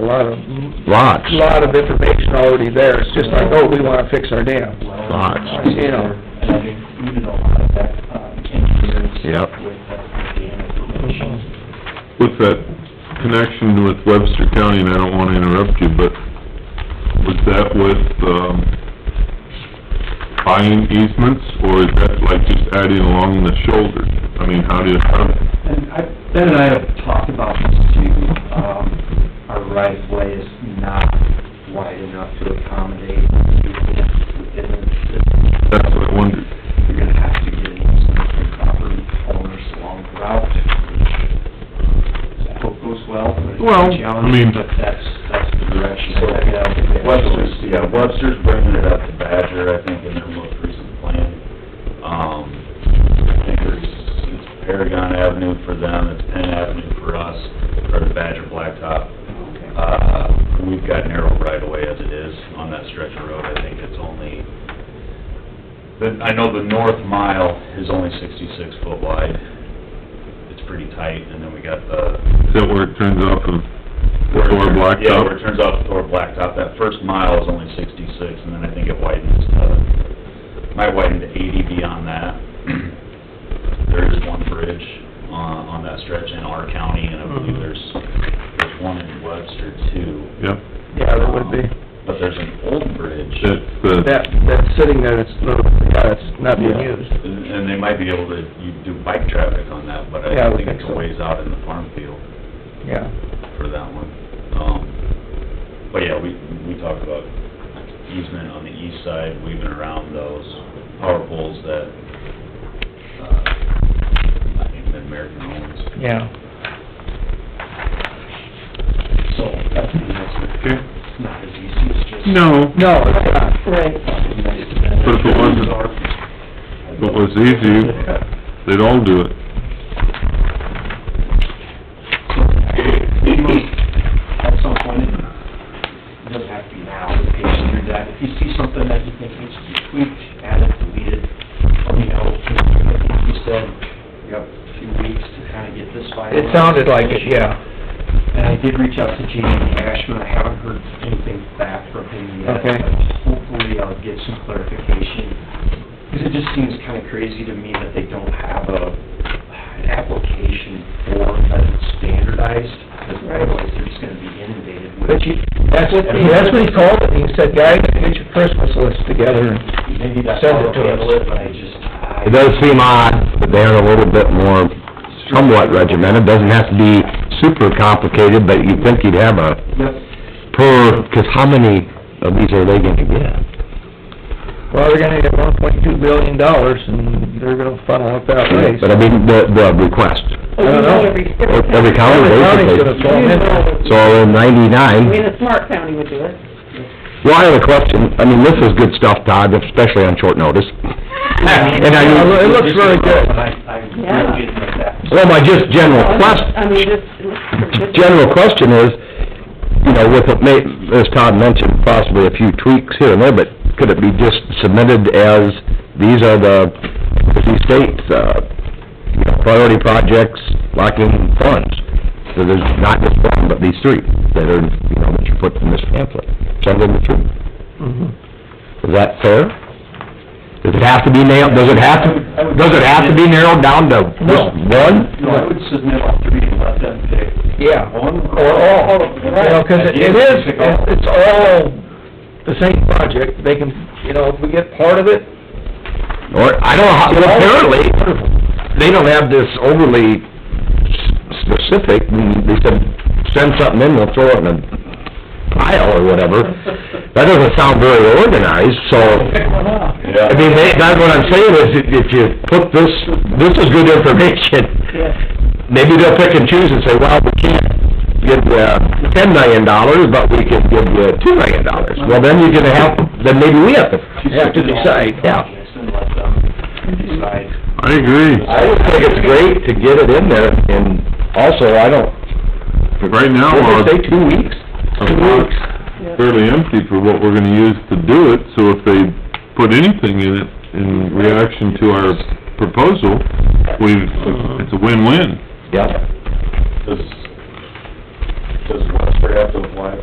a lot of, Lots, lot of information already there, it's just like, oh, we wanna fix our dam. lots. You know. And I think you did a lot of that, um, engineers. Yep. With that, information. With that connection with Webster County, and I don't wanna interrupt you, but was that with, um, buying easements, or is that like just adding along the shoulder? I mean, how do you, how, And I, Ben and I have talked about this too, um, our right of way is not wide enough to accommodate units within the, that's what I wondered. you're gonna have to get an easement from property owners along the route, which I hope goes well, but it's Well, I a challenge, mean- but that's, that's the direction. So, I think Webster's, yeah, Webster's bringing it up to Badger, I think, in their most recent plan. Um, I think there's, it's Paragon Avenue for them, it's Penn Avenue for us, or the Badger Blacktop. Uh, we've got narrow right away as it is on that stretch of road, I think it's only, the, I know the north mile is only sixty-six foot wide. It's pretty tight, and then we got the Is that where it turns off of Thor yeah, where it Blacktop? turns off Thor Blacktop, that first mile is only sixty-six, and then I think it widens to, might widen to eighty beyond that. There is one bridge on, on that stretch in our county, and I Mm-hmm. believe there's, there's one in Webster too. Um, Yep, Yeah, that would be, But there's an old bridge. that's the, that, that's sitting there, it's, not- yeah, it's not being used. And and they might be able to, you do bike traffic on that, but Yeah, I I would think think it's so. a ways out in the farm field. Yeah, for that one. Um, but yeah, we, we talked about easement on the east side, weaving around those power poles that, uh, I think the American owns. yeah. So, that's the answer. Okay. It's not as easy as just. no, No, it's not. Right. But if it wasn't- if it was easy, they'd all do it. At some point, it doesn't have to be now, but patient through that. If you see something that you think needs to be tweaked, added, deleted, let me know. I think You said, you have a few weeks to kind of get this finalized. It sounded like it, yeah. And I did reach out to Jamie Ashman, I haven't heard anything back from him yet. Okay. but Hopefully I'll get some clarification, because it just seems kind of crazy to me that they don't have a, an application form that's standardized, because otherwise they're just gonna be inundated with. But you, that's what, that's what he called it, he said, guys, get your Christmas list together. Maybe that's Send it how they'll to us. handle it, but I just, I. It does seem odd, but they're a little bit more somewhat regimented, doesn't have to be super complicated, but you'd think you'd have a Yep. per, 'cause how many of these are they gonna get? Well, they're gonna get one point two billion dollars, and they're gonna funnel it that way. But I mean, the, the request, I don't know. Every- Every every county county's basically. gonna fall in. So in I mean, ninety-nine, a smart county would do it. well, I have a question, I mean, this is good stuff, Todd, especially on short notice. And I It mean, looks really good. But I, I Yeah. really didn't like that. Well, my just general question, I mean, just. general question is, you know, with, it may- as Todd mentioned, possibly a few tweaks here and there, but could it be just submitted as, these are the, these states, uh, you know, priority projects lacking funds? So there's not just one, but these three that are, you know, that you put in this pamphlet, send them to them. Mhm. Mm-hmm. Is that fair? Does it have to be nailed, does it have to, does it have to be narrowed down to just one? No, I would submit all three and let them pick Yeah. one. Or all, you know, 'cause it it is, Pick all. it's it's all the same project, they can, you know, if we get part of it, Or, I don't know, how- well, apparently, they don't have this overly s- specific, and they said, send something in, we'll throw it in a pile or whatever. That doesn't sound very organized, so, Yeah. I mean, they- that's what I'm saying is, if- if you put this, this is good information, maybe they'll pick and choose and say, well, we can't give you uh, ten million dollars, but we can give you two million dollars. Well, then you're gonna have, then maybe we have to, have to decide, yeah. And let them decide. I agree. I would think it's great to get it in there, and also, I don't, Right now, uh, what our, did they say, two weeks? our lot's fairly empty for what we're gonna use to do it, so if they put anything in it in reaction to our proposal, we've, it's a win-win. Yeah. Does, does Webster have to apply